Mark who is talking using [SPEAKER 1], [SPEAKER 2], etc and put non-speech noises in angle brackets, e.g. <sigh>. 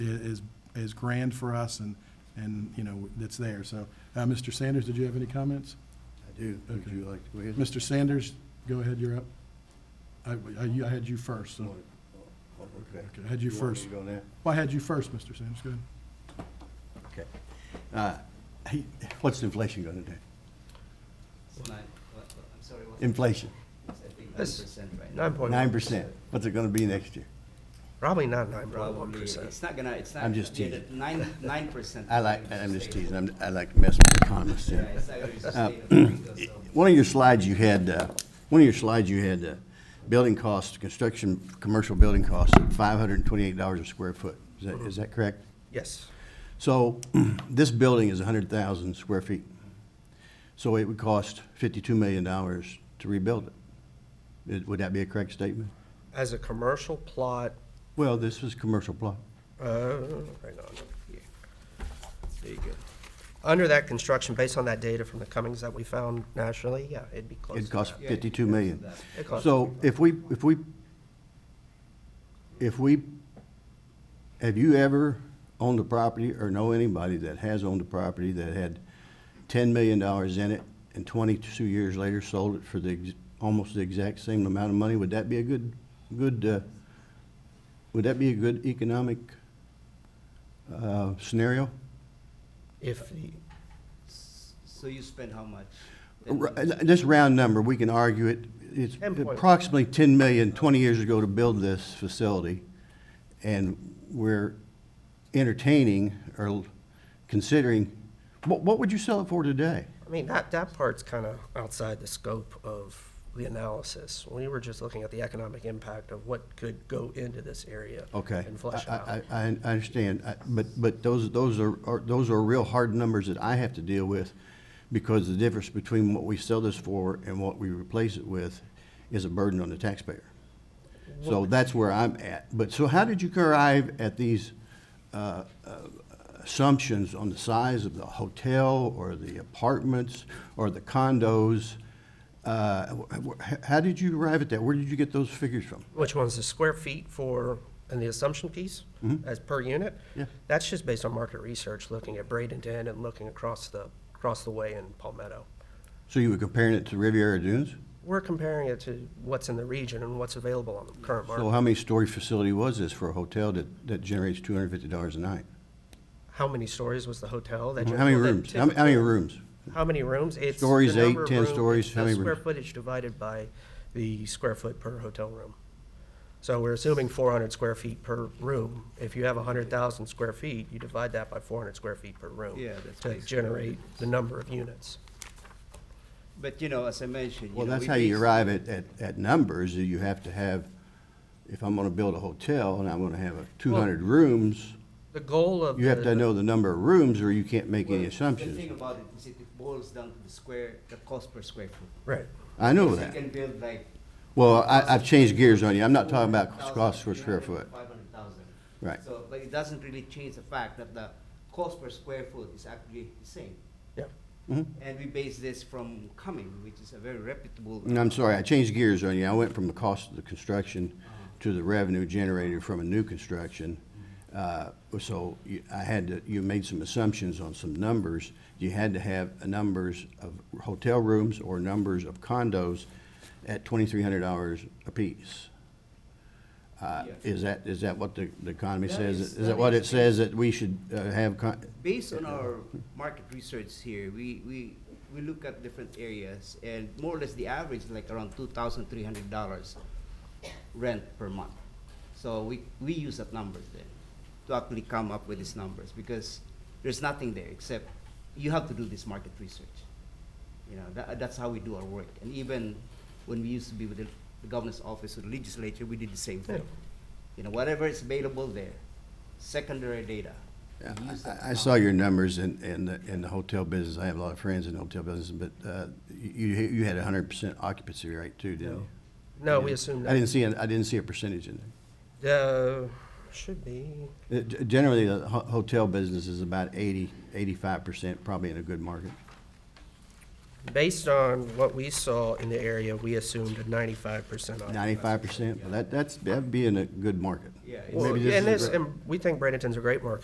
[SPEAKER 1] i- is, is grand for us and, and, you know, that's there. So, uh, Mr. Sanders, did you have any comments?
[SPEAKER 2] I do. Would
[SPEAKER 1] Okay.
[SPEAKER 2] you like to go ahead?
[SPEAKER 1] Mr. Sanders, go ahead, you're up. I, I you- I had you first, so,
[SPEAKER 2] Oh, okay.
[SPEAKER 1] Okay, had you
[SPEAKER 2] want me
[SPEAKER 1] first.
[SPEAKER 2] to go now?
[SPEAKER 1] well, I had you first, Mr. Sanders, go ahead.
[SPEAKER 2] Okay. Uh, hey, What's inflation going to do?
[SPEAKER 3] It's nine, what, what- I'm sorry, what?
[SPEAKER 2] Inflation,
[SPEAKER 3] It's, I think,
[SPEAKER 4] It's
[SPEAKER 3] 9% right now.
[SPEAKER 4] Nine
[SPEAKER 1] Oh,
[SPEAKER 4] point
[SPEAKER 2] nine
[SPEAKER 4] one
[SPEAKER 2] percent. What's it going to be next year?
[SPEAKER 4] Probably not nine point one
[SPEAKER 3] Probably,
[SPEAKER 4] percent.
[SPEAKER 3] it's not gonna, it's not.
[SPEAKER 2] I'm just
[SPEAKER 3] yeah,
[SPEAKER 2] teasing.
[SPEAKER 3] the Nine, nine percent.
[SPEAKER 2] I like, I'm just teasing. I'm, I like to mess with economists.
[SPEAKER 3] Yeah,
[SPEAKER 2] yeah.
[SPEAKER 3] it's not gonna
[SPEAKER 2] Uh, <clears throat>
[SPEAKER 3] sustain it, so.
[SPEAKER 2] One of your slides you had, uh, one of your slides you had, uh, building costs, construction, commercial building costs, five hundred and twenty-eight dollars a square foot. Is that, is that correct?
[SPEAKER 4] Yes,
[SPEAKER 2] So <clears throat> this building is 100,000 square feet. So it would cost $52 million to rebuild it. Is- Would that be a correct statement?
[SPEAKER 4] as a commercial plot,
[SPEAKER 2] Well, this was commercial plot.
[SPEAKER 4] uh, right on, yeah. There you go. Under that construction, based on that data from the Cummings that we found nationally, yeah, it'd be close
[SPEAKER 2] It
[SPEAKER 4] to
[SPEAKER 2] cost
[SPEAKER 4] that.
[SPEAKER 2] $52 million.
[SPEAKER 4] It costs-
[SPEAKER 2] So if we, if we, if we, have you ever owned a property or know anybody that has owned a property that had $10 million in it and 22 years later sold it for the, ex- almost the exact same amount of money? Would that be a good, good, uh, would that be a good economic uh, scenario?
[SPEAKER 4] If, the-
[SPEAKER 3] So you spend how much? Then
[SPEAKER 2] R- Just uh, round number, we can argue it, it's
[SPEAKER 4] 10.1.
[SPEAKER 2] approximately 10 million, 20 years ago to build this facility, and we're entertaining or l- considering, what, what would you sell it for today?
[SPEAKER 4] I mean, that, that part's kind of outside the scope of the analysis. We were just looking at the economic impact of what could go into this area.
[SPEAKER 2] Okay.
[SPEAKER 4] And flush it
[SPEAKER 2] I-
[SPEAKER 4] out.
[SPEAKER 2] I, I, I understand, I- but, but those, those are, are- those are real hard numbers that I have to deal with, because the difference between what we sell this for and what we replace it with is a burden on the taxpayer. So that's where I'm at. But, so how did you arrive at these uh, uh, assumptions on the size of the hotel, or the apartments, or the condos? Uh, wh- wh- How did you arrive at that? Where did you get those figures from?
[SPEAKER 4] Which one's the square feet for, and the assumption piece, as per unit?
[SPEAKER 2] Mm-hmm. Yeah.
[SPEAKER 4] That's just based on market research, looking at Bradenton and looking across the, across the way in Palmetto.
[SPEAKER 2] So you were comparing it to Riviera Dunes?
[SPEAKER 4] We're comparing it to what's in the region and what's available on the current
[SPEAKER 2] So
[SPEAKER 4] market.
[SPEAKER 2] how many story facility was this for a hotel that, that generates two hundred fifty dollars a night?
[SPEAKER 4] How many stories was the hotel that? you-
[SPEAKER 2] How many
[SPEAKER 4] well, that
[SPEAKER 2] rooms? How many- how many
[SPEAKER 4] typical-
[SPEAKER 2] rooms?
[SPEAKER 4] How many rooms? It's the
[SPEAKER 2] Stories, eight,
[SPEAKER 4] number of
[SPEAKER 2] 10
[SPEAKER 4] rooms-
[SPEAKER 2] stories,
[SPEAKER 4] it's
[SPEAKER 2] how
[SPEAKER 4] the
[SPEAKER 2] many
[SPEAKER 4] Square
[SPEAKER 2] rooms?
[SPEAKER 4] footage divided by the square foot per hotel room. So we're assuming four hundred square feet per room. If you have hundred thousand square feet, you divide that by four hundred square feet per room.
[SPEAKER 3] Yeah, that's
[SPEAKER 4] To
[SPEAKER 3] basically
[SPEAKER 4] generate
[SPEAKER 3] what it is.
[SPEAKER 4] the number of units.
[SPEAKER 3] But, you know, as I mentioned, you
[SPEAKER 2] Well,
[SPEAKER 3] know,
[SPEAKER 2] that's
[SPEAKER 3] we
[SPEAKER 2] how you
[SPEAKER 3] base-
[SPEAKER 2] arrive at, at, at numbers, is you have to have, if I'm gonna build a hotel and I'm gonna have two hundred rooms,
[SPEAKER 4] The goal of.
[SPEAKER 2] you have
[SPEAKER 4] the-
[SPEAKER 2] to know the number of rooms or you can't make
[SPEAKER 3] Well,
[SPEAKER 2] any
[SPEAKER 3] The thing
[SPEAKER 2] assumptions.
[SPEAKER 3] about it is it it boils down to the square, the cost per square foot.
[SPEAKER 4] Right.
[SPEAKER 2] I know
[SPEAKER 3] So You
[SPEAKER 2] that.
[SPEAKER 3] can build like.
[SPEAKER 2] Well, I, I've changed gears on you. I'm not talking about
[SPEAKER 3] 400,000,
[SPEAKER 2] cost per square foot.
[SPEAKER 3] 300,000, 500,000.
[SPEAKER 2] Right.
[SPEAKER 3] So, but it doesn't really change the fact that the cost per square foot is actually the same.
[SPEAKER 4] Yeah.
[SPEAKER 3] And we base this from Cumming, which is a very reputable.
[SPEAKER 2] And I'm sorry, I changed gears on you. I went from the cost of the construction to the revenue generated from a new construction. Uh, So you- I had to, you made some assumptions on some numbers. You had to have numbers of hotel rooms or numbers of condos at twenty-three hundred dollars apiece. Uh,
[SPEAKER 3] Yes.
[SPEAKER 2] Is that, is that what the the economy
[SPEAKER 3] That
[SPEAKER 2] says?
[SPEAKER 3] is-
[SPEAKER 2] Is that
[SPEAKER 3] that
[SPEAKER 2] what
[SPEAKER 3] is-
[SPEAKER 2] it says that we should uh, have? con-
[SPEAKER 3] Based on our market research here, we, we, we look at different areas and more or less the average is like around two thousand three hundred dollars rent per month. So we, we use that numbers then to actually come up with these numbers because there's nothing there except you have to do this market research. You know, that, that's how we do our work. And even when we used to be with the, the governor's office or the legislature, we did the same thing. You know, whatever is available there, secondary data. we
[SPEAKER 2] Yeah,
[SPEAKER 3] use that
[SPEAKER 2] I- I
[SPEAKER 3] to
[SPEAKER 2] saw your numbers in, in the, in the hotel business. I have a lot of friends in the hotel business, but uh, you, you had a hundred percent occupancy rate too, didn't you?
[SPEAKER 4] No, we assume
[SPEAKER 2] I
[SPEAKER 4] that.
[SPEAKER 2] didn't see, an- I didn't see a percentage in there.
[SPEAKER 4] Uh, should be,
[SPEAKER 2] Uh, g- Generally, the ho- hotel business is about eighty, eighty-five percent, probably in a good market.
[SPEAKER 4] Based on what we saw in the area, we assumed a ninety-five percent occupancy.
[SPEAKER 2] Ninety-five percent, that, that's, that'd be in a good market.
[SPEAKER 3] Yeah, it's-
[SPEAKER 4] Well,
[SPEAKER 2] Maybe this is
[SPEAKER 4] and
[SPEAKER 2] a
[SPEAKER 4] this,
[SPEAKER 2] great-
[SPEAKER 4] and we think Bradenton's a great market.